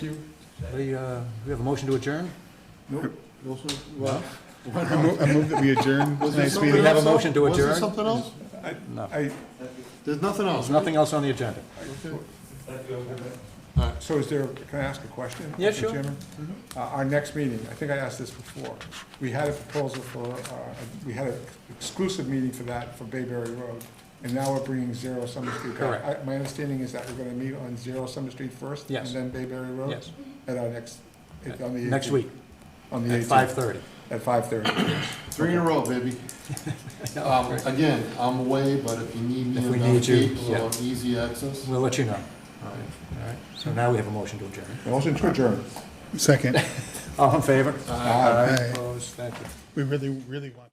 We, uh, we have a motion to adjourn? Nope. Also, well, I mo- I move that we adjourn was there tonight's something we meeting. have a else, though? motion to Was there adjourn? something else? No. I, There's nothing else. There's nothing else on the agenda. so is there, can I ask a question? Yeah, Mr. sure. Mm-hmm. Chairman? Uh, Our next meeting, I think I asked this before, we had a proposal for, uh, we had an exclusive meeting for that for Bayberry Road, and now we're bringing Zero Summer Street back. Correct. I- My understanding is that we're gonna meet on Zero Summer Street first? Yes. And then Bayberry Road? Yes. At our next, it- on the. Next 18th. week, On the at 18th. five-thirty. At five-thirty. Three in a row, baby. Um, Again, I'm away, but if you need If we me need around you, eight, yeah. or easy access. We'll let you know. All right, all right. So now we have a motion to adjourn. Motion to adjourn. Second. All in favor? Aye. Opposed? Thank you. We really, really want.